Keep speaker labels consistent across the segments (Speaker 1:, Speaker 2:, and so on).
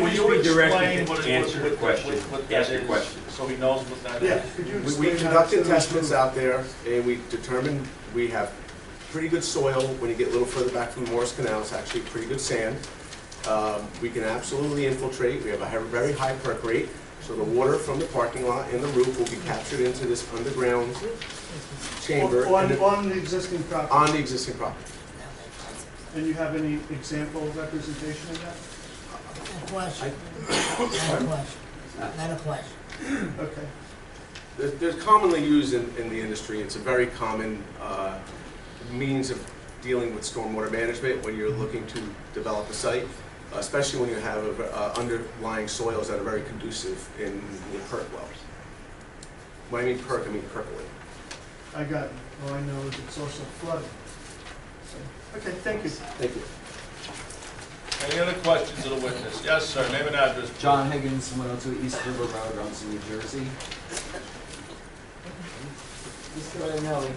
Speaker 1: Please
Speaker 2: you
Speaker 1: be direct
Speaker 2: explain
Speaker 1: and
Speaker 2: what it- what-
Speaker 1: answer the
Speaker 2: what-
Speaker 1: question.
Speaker 2: what that
Speaker 1: Ask your
Speaker 2: is,
Speaker 1: question.
Speaker 2: So he knows what that
Speaker 3: Yeah,
Speaker 2: is.
Speaker 3: could you
Speaker 4: We- We
Speaker 3: explain how
Speaker 4: conducted
Speaker 3: it's gonna be
Speaker 4: testments
Speaker 3: proven?
Speaker 4: out there, and we determined we have pretty good soil. When you get a little further back from Morris Canal, it's actually pretty good sand. Um, We can absolutely infiltrate, we have a he- very high perk rate, so the water from the parking lot and the roof will be captured into this underground chamber
Speaker 3: On,
Speaker 4: and-
Speaker 3: on the existing property,
Speaker 4: on the existing property.
Speaker 3: and you have any example representation of that?
Speaker 5: A question, not a question, not a question.
Speaker 4: Hmm.
Speaker 3: Okay,
Speaker 4: They're- They're commonly used in, in the industry, it's a very common uh, means of dealing with stormwater management when you're looking to develop a site, especially when you have a ver- uh, underlying soils that are very conducive in the perk wells. When I mean perk, I mean percolate.
Speaker 3: I got it. All I know is it's also flooded. So, Okay, thank you.
Speaker 4: Thank you.
Speaker 2: Any other questions of the witness? Yes, sir, name and address.
Speaker 6: John Higgins, 102 East River Road, Rumson, New Jersey. Mr. Iannelli,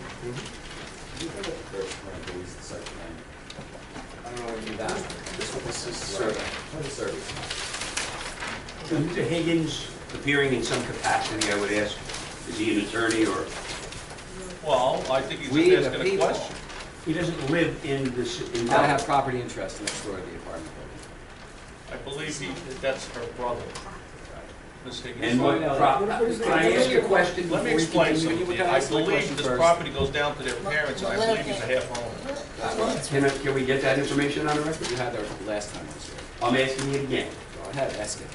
Speaker 6: you have a first one, please, the site plan. I don't know what you've asked.
Speaker 4: This one, this is survey.
Speaker 6: For the service.
Speaker 1: Mr. Higgins, appearing in some capacity, I would ask, is he an attorney or?
Speaker 2: Well, I think he's
Speaker 6: We,
Speaker 2: just
Speaker 6: the
Speaker 2: asking a
Speaker 6: people.
Speaker 2: question.
Speaker 1: He doesn't live in this, in
Speaker 6: I have property interest next door to the apartment
Speaker 2: I believe he, that's her brother, Miss Higgins.
Speaker 1: And what, prop- can I ask a question
Speaker 2: Let me
Speaker 1: before you
Speaker 2: explain
Speaker 1: continue?
Speaker 2: something.
Speaker 6: You gotta
Speaker 2: I
Speaker 6: ask my
Speaker 2: believe
Speaker 6: question
Speaker 2: this
Speaker 6: first.
Speaker 2: property goes down to their parents, and I believe he's a half owner.
Speaker 6: building.
Speaker 1: Can, I- can we get that information on the record?
Speaker 6: uh, You had that last time I was here.
Speaker 1: I'm asking you again.
Speaker 6: Go ahead, ask it.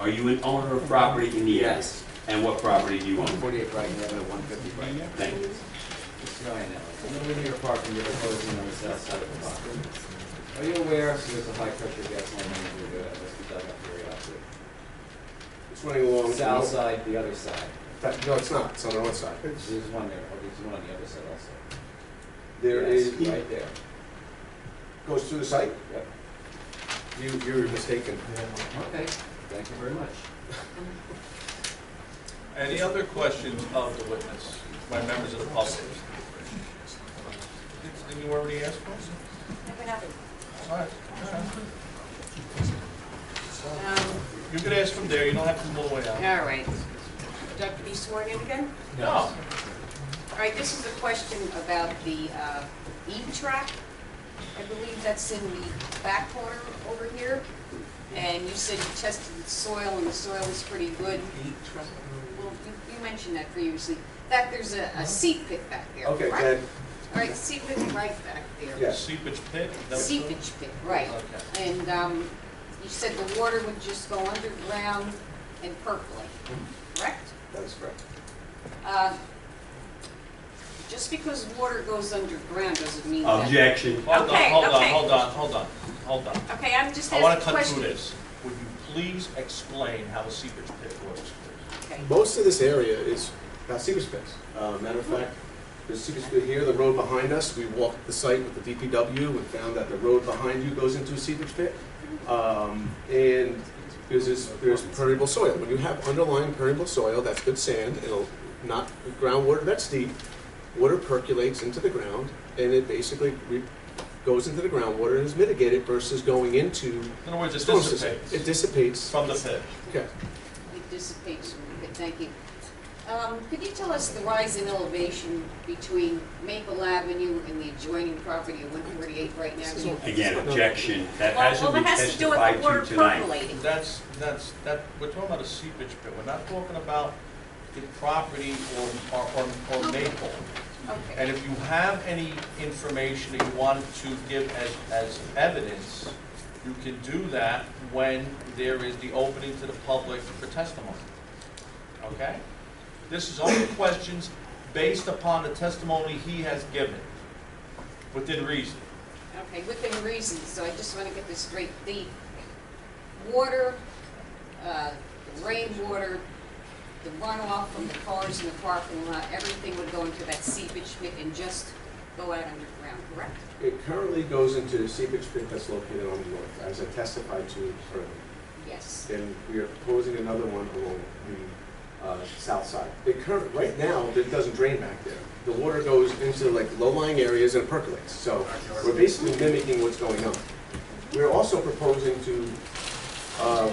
Speaker 1: Are you an owner of property in the area?
Speaker 6: Yes.
Speaker 1: And what property do you own?
Speaker 6: 148 Brighton Avenue, 150 Brighton Avenue.
Speaker 1: Thank you.
Speaker 6: Mr. Iannelli, I'm living near your parking, you're proposing on the south side of the block. Are you aware there's a high-pressure gas line running through there that must be dug up periodically?
Speaker 4: It's running along.
Speaker 6: South side, the other side.
Speaker 4: That- No, it's not, it's on the north side.
Speaker 3: It's-
Speaker 6: There's one there, or there's one on the other side also.
Speaker 4: There
Speaker 6: Yes,
Speaker 4: is,
Speaker 6: Right there.
Speaker 4: goes through the site,
Speaker 6: Yep.
Speaker 4: you, you're mistaken.
Speaker 6: Okay, thank you very much.
Speaker 2: Any other questions of the witness by members of the public? Did- Did you already ask one? All right. You could ask from there, you don't have to move away out.
Speaker 7: Um, All right. Do I have to be sworn in again?
Speaker 2: No,
Speaker 7: All right, this is a question about the uh, E-Track. I believe that's in the back corner over here. And you said you tested the soil, and the soil is pretty good.
Speaker 4: E
Speaker 7: Well, you- you mentioned that previously. That there's a a seed pit back there,
Speaker 4: Okay,
Speaker 7: right?
Speaker 4: then,
Speaker 7: All right, seed pit right back there.
Speaker 4: Yeah.
Speaker 2: seepage pit? is that what it's called?
Speaker 7: Seepage pit, right.
Speaker 2: Okay.
Speaker 7: And um, you said the water would just go underground and percolate, correct?
Speaker 4: that is correct.
Speaker 7: Uh, Just because water goes underground doesn't mean
Speaker 1: Um,
Speaker 7: that...
Speaker 1: Objection.
Speaker 2: Hold on,
Speaker 7: Okay,
Speaker 2: hold on,
Speaker 7: okay.
Speaker 2: hold on, hold on, hold on.
Speaker 7: Okay, I'm just
Speaker 2: I want to
Speaker 7: asking
Speaker 2: cut through
Speaker 7: questions.
Speaker 2: this. Would you please explain how a seepage pit works, please?
Speaker 7: Okay.
Speaker 4: Most of this area is about secret space. Uh, matter of fact, there's secret space here, the road behind us, we walked the site with the DPW and found that the road behind you goes into a secret pit. Um, and there's this, there's permeable soil. When you have underlying permeable soil, that's good sand, it'll not, groundwater that's deep, water percolates into the ground and it basically re- goes into the groundwater and is mitigated versus going into.
Speaker 2: In other words, it
Speaker 4: storm system.
Speaker 2: dissipates
Speaker 4: It dissipates,
Speaker 2: from the pit.
Speaker 4: okay.
Speaker 7: It dissipates, Okay, thank you. Um, Could you tell us the rise in elevation between Maple Avenue and the adjoining property of 148 right now?
Speaker 1: Again, objection. That
Speaker 7: Well,
Speaker 1: hasn't
Speaker 7: well,
Speaker 1: been
Speaker 7: it has to do with the
Speaker 1: testified
Speaker 7: water
Speaker 1: to tonight.
Speaker 7: percolating.
Speaker 2: That's, that's, that, we're talking about a seepage pit. We're not talking about the property or, or- or, or Maple.
Speaker 7: Okay,
Speaker 2: And if you have any information that you want to give as, as evidence, you can do that when there is the opening to the public for testimony. Okay? This is only questions based upon the testimony he has given, within reason.
Speaker 7: okay, within reason, so I just want to get this straight. The water, uh, the rainwater, the runoff from the cars in the parking lot, everything would go into that seepage pit and just go out underground, correct?
Speaker 4: It currently goes into the seepage pit that's located on the north, as I testified to earlier.
Speaker 7: Yes.
Speaker 4: And we are proposing another one along the uh, south side. It current, right now, it doesn't drain back there. The water goes into like low-lying areas and percolates, so we're basically mimicking what's going on. We're also proposing to uh,